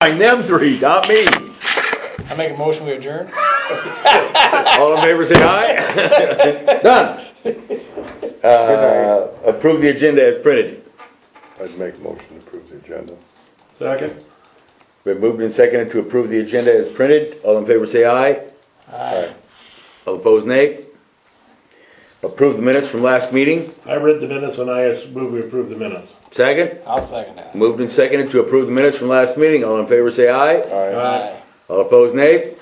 Find them three, not me. I make a motion, we adjourn? All in favor, say aye. Done. Uh, Approve the agenda as printed. I'd make a motion to approve the agenda. Second. Been moved and seconded to approve the agenda as printed. All in favor, say aye. Aye. All opposed, nay. Approve the minutes from last meeting. I read the minutes and I move we approve the minutes. Second. I'll second that. Moved and seconded to approve the minutes from last meeting. All in favor, say aye. Aye. Aye. All opposed, nay.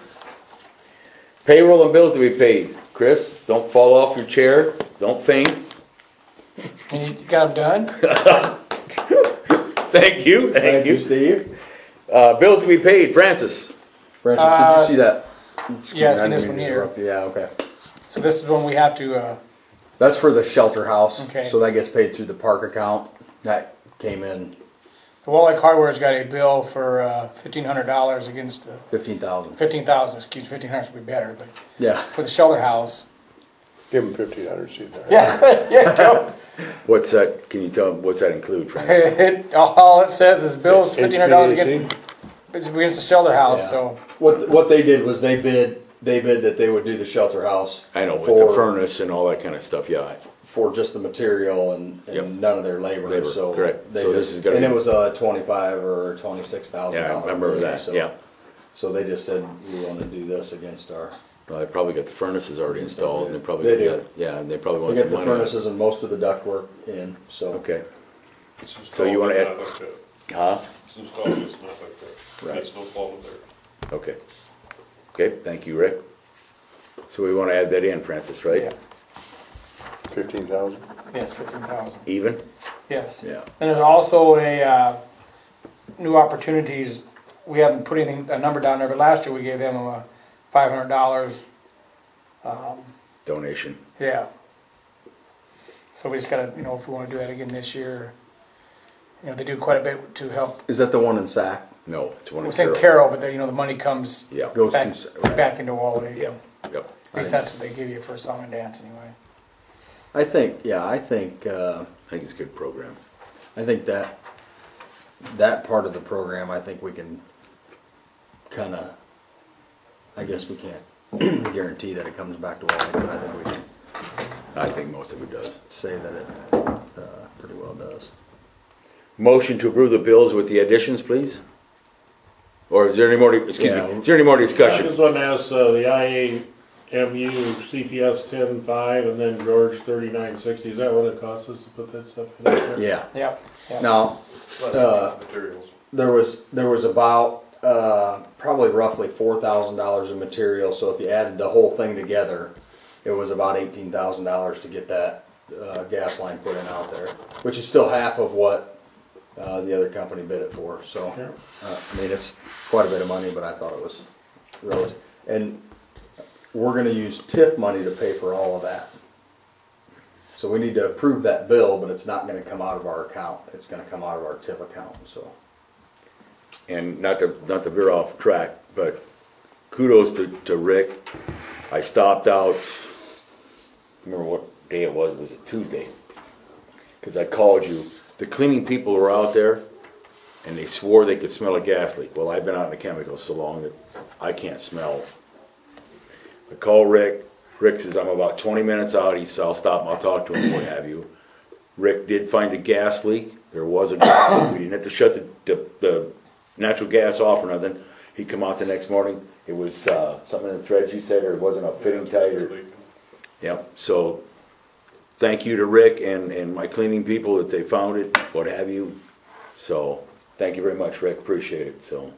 Payroll and bills to be paid. Chris, don't fall off your chair. Don't faint. And you got them done? Thank you, thank you. Steve. Uh, bills to be paid. Francis. Francis, did Uh, you see that? Yeah, I I see didn't this mean one to here. interrupt you. Yeah, okay. So this is when we have to, uh, That's for the shelter house. Okay. So that gets paid through the park account. That came in the Walleye Hardware's got a bill for, uh, fifteen hundred dollars against the, fifteen thousand. fifteen thousand, excuse, me, fifteen hundred would be better, but Yeah. for the shelter house. Give him fifteen hundred, see there. Yeah, yeah, go. What's that, can you tell, what's that include, Francis? It, all it says is bill fifteen hundred dollars against, HVAC? against the shelter house, Yeah. so. What what they did was they bid they bid that they would do the shelter house. I know, with the for furnace and all that kind of stuff, yeah. for just the material and, and Yep. none of their labor. Labor, So correct. They So this just, is gonna and be- it was a twenty five or twenty six thousand. Yeah, I remember that, So, yeah. So they just said we want to do this against our. Well, they probably got the furnaces already installed, and they probably. They do. got- Yeah, and they probably We want got some the money. on it. furnaces and most of the ductwork in. So Okay, So you wanna add- huh, It's installed, it's not like that. Right. That's no fault of theirs. okay. Okay, thank you, Rick. So we wanna add that in, Francis, right? Fifteen thousand? Yes, fifteen thousand, Even? yes. Yeah. And there's also a, uh, new opportunities, we haven't put anything, a number down there, but last year we gave them a five hundred dollars. Donation, Yeah. So we just gotta, you know, if we wanna do that again this year, you know, they do quite a bit to help. is that the one in Sac? no, it's one We're of saying Carol. Carroll, but then, you know, the money comes Yeah, Goes back, to Sac, right. back into Wally. yeah, yep. At least that's what they give you for a song and dance anyway. I think yeah. I think uh, I think it's a good program. I think that that part of the program. I think we can kind of. I guess we can't guarantee that it comes back to Wally, but I think we can I think most of it does. say that it uh, pretty well does. Motion to approve the bills with the additions, please? Or is there any more, excuse me, Yeah. is there any more I discussion? just want to ask, uh, the IAMU CPS ten five and then George thirty-nine sixty, is that what it costs us to put that stuff in there? Yeah. Yep, yep. Now, uh, Materials. there was, there was about, uh, probably roughly four thousand dollars in material, so if you added the whole thing together, it was about eighteen thousand dollars to get that, uh, gas line put in out there, which is still half of what, uh, the other company bid it for, so. Sure. Uh, I mean, it's quite a bit of money, but I thought it was relative, and we're gonna use TIF money to pay for all of that. So we need to approve that bill, but it's not gonna come out of our account, it's gonna come out of our TIF account, so. and not to, not to veer off track, but kudos to, to Rick. I stopped out, remember what day it was, it was Tuesday, because I called you. The cleaning people were out there, and they swore they could smell a gas leak. Well, I've been out in the chemicals so long that I can't smell. I call Rick, Rick says, I'm about twenty minutes out, he says, I'll stop, and I'll talk to him, what have you. Rick did find a gas leak. There was a gas leak. We didn't have to shut the, the, the natural gas off or nothing. He come out the next morning. It was, uh, something in the threads you said, or it wasn't a fitting tight or, yep. So thank you to Rick and, and my cleaning people that they found it, what have you. So thank you very much, Rick. Appreciate it. So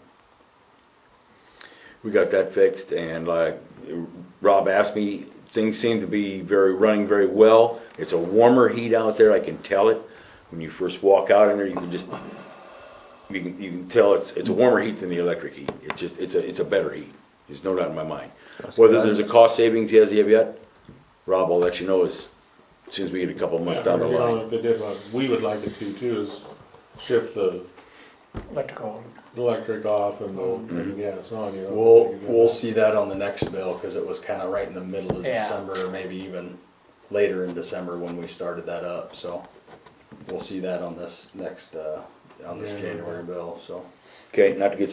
we got that fixed and like Rob asked me, things seem to be very, running very well. It's a warmer heat out there, I can tell it. When you first walk out in there, you can just, you can, you can tell it's, it's a warmer heat than the electric heat. It's just, it's a, it's a better heat. There's no doubt in my mind. Whether there's a cost savings as of yet, Rob, I'll let you know as soon as we get a couple months down the line. If they did, what we would like it to too, is shift the Electrical. electric off and the, and the gas on, you know. We'll, we'll see that on the next bill, cause it was kinda right in the middle of Yeah. December, or maybe even later in December when we started that up, so. We'll see that on this next, uh, on this Yeah. January bill, so. Okay, not to get